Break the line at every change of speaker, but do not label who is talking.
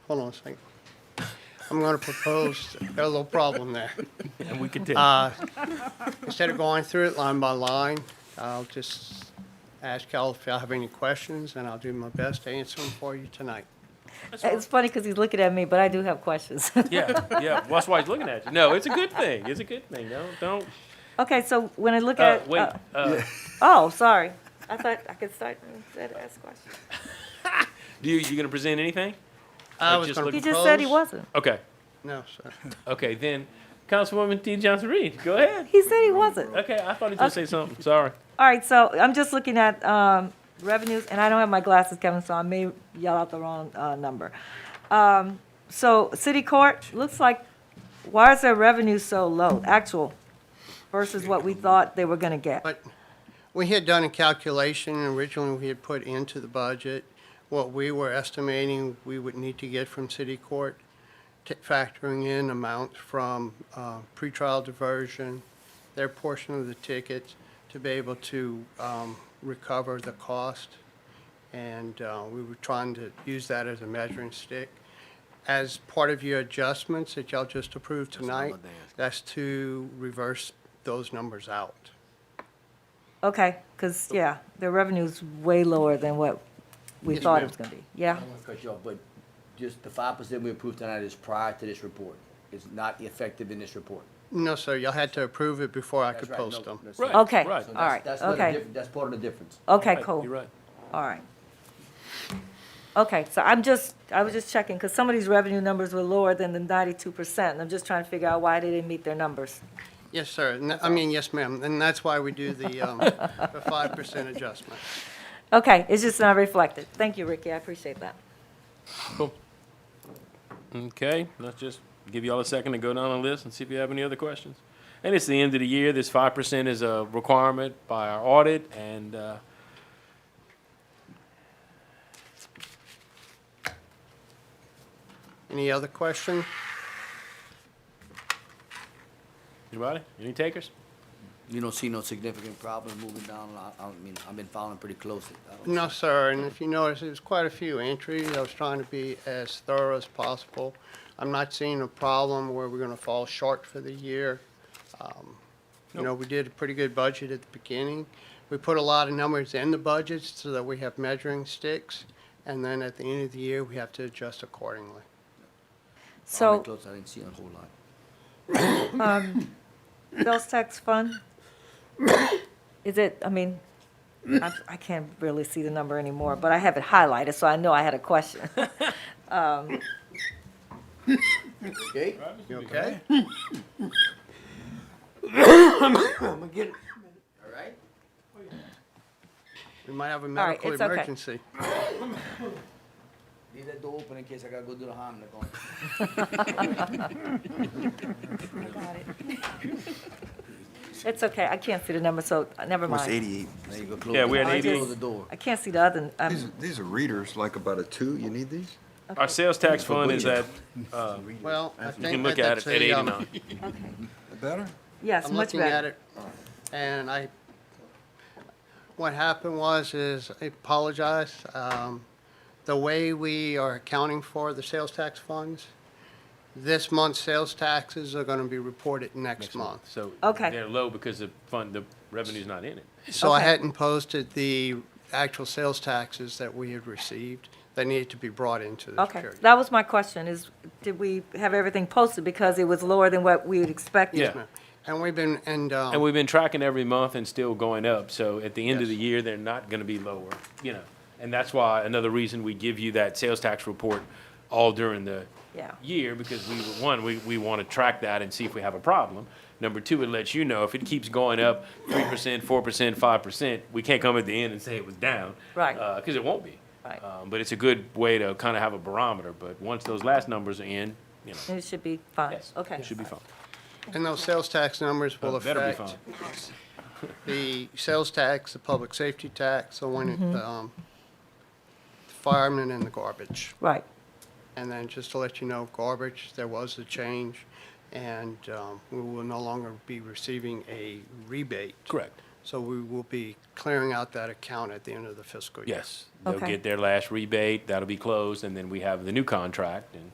hold on a second. I'm going to propose a little problem there.
And we could do.
Instead of going through it line by line, I'll just ask y'all if y'all have any questions, and I'll do my best to answer them for you tonight.
It's funny because he's looking at me, but I do have questions.
yeah, yeah. Well, that's why he's looking at you. No, it's a good thing. It's a good thing. Don't, don't.
Okay, so when I look
Uh,
at.
wait.
uh,
Uh,
Oh, sorry. I thought I could start instead ask questions.
do you you gonna present anything?
I
Or
was
just
gonna
look-
He just said he
propose-
wasn't.
Okay,
No, sir.
okay. Then, Councilwoman T. Johnson Reed, go ahead.
He said he wasn't.
Okay, I thought he was gonna say something. Sorry.
All right, so I'm just looking at um, revenues, and I don't have my glasses, Kevin, so I may yell out the wrong uh, number. Um, So city court, looks like, why is their revenue so low, actual versus what we thought they were going to get?
But we had done a calculation, and originally we had put into the budget what we were estimating we would need to get from city court, t- factoring in amounts from uh, pretrial diversion, their portion of the tickets, to be able to um, recover the cost. And uh, we were trying to use that as a measuring stick. As part of your adjustments that y'all just approved tonight, that's to reverse those numbers out.
Okay, because, yeah, their revenue's way lower than what we
Yes,
thought
ma'am.
it was going to be. Yeah?
I don't want to cut you off, but just the five percent we approved tonight is prior to this report. It's not effective in this report.
No, sir, y'all had to approve it before I
That's
could
right,
post
no,
them.
that's
Right.
So
Okay, all
right. So
that's-
right,
that's what the
okay.
diff- That's part of the difference.
Okay,
Right,
cool.
You're right.
All right. Okay, so I'm just, I was just checking, because some of these revenue numbers were lower than the ninety-two percent, and I'm just trying to figure out why they didn't meet their numbers.
Yes, sir, and I mean, yes, ma'am, and that's why we do the, um, the five percent adjustment.
Okay, it's just not reflected. Thank you, Ricky, I appreciate that.
Cool. Okay, let's just give y'all a second to go down the list and see if you have any other questions. And it's the end of the year. This five percent is a requirement by our audit, and uh,
Any other question?
anybody, any takers?
You don't see no significant problem moving down, I, I mean, I've been following pretty closely. I don't-
No, sir, and if you notice, there's quite a few entries, I was trying to be as thorough as possible. I'm not seeing a problem where we're gonna fall short for the year. Um, You know, we did a pretty good budget at the beginning. We put a lot of numbers in the budgets so that we have measuring sticks, and then at the end of the year, we have to adjust accordingly.
Following
So,
close, I didn't see a whole lot.
sales tax fund? Is it, I mean, I, I can't really see the number anymore, but I have it highlighted, so I know I had a question.
Okay?
You okay?
All right.
We might have a
right,
medical
it's okay.
emergency.
Leave that door open in case I gotta go do the harm. like, on-
It's okay, I can't see the number, so, uh, never
Almost
mind.
eighty-eight.
There you go, close.
Yeah, we had
the-
88.
Close the door.
I can't see the other, um,
These, these are readers, like about a two, you need these?
Our sales tax
But
fund
we-
is at,
Well, I
you can
think that
look at
that's
it, at
a, um,
eighty-nine.
okay.
Better?
Yes,
I'm
much
looking
better.
at it, and I, what happened was is, I apologize, um, the way we are accounting for the sales tax funds, this month's sales taxes are gonna be reported next month.
So
Okay.
they're low because the fund, the revenue's not in it.
So I
Okay.
hadn't posted the actual sales taxes that we had received that needed to be brought into this
Okay,
period.
that was my question, is did we have everything posted because it was lower than what we had expected?
Yeah.
Yes, ma'am. And we've been, and, um.
And we've been tracking every month and still going up, so at the end of the
Yes.
year, they're not gonna be lower, you know? And that's why, another reason we give you that sales tax report all during the
Yeah.
year, because we, one, we, we wanna track that and see if we have a problem. Number two, it lets you know if it keeps going up three percent, four percent, five percent, we can't come at the end and say it was down.
Right.
uh, cause it won't be.
Right.
Um, but it's a good way to kinda have a barometer, but once those last numbers are in, you know,
And It should be fine,
yes,
okay.
should be fine.
And those sales tax numbers will
Uh, better be
affect the sales tax, the public safety tax, the one,
Mm-hmm.
the um, firemen and the garbage.
Right,
And then just to let you know, garbage, there was a change, and um, we will no longer be receiving a rebate
Correct.
So we will be clearing out that account at the end of the fiscal year.
Yes, they'll
Okay.
get their last rebate, that'll be closed, and then we have the new contract, and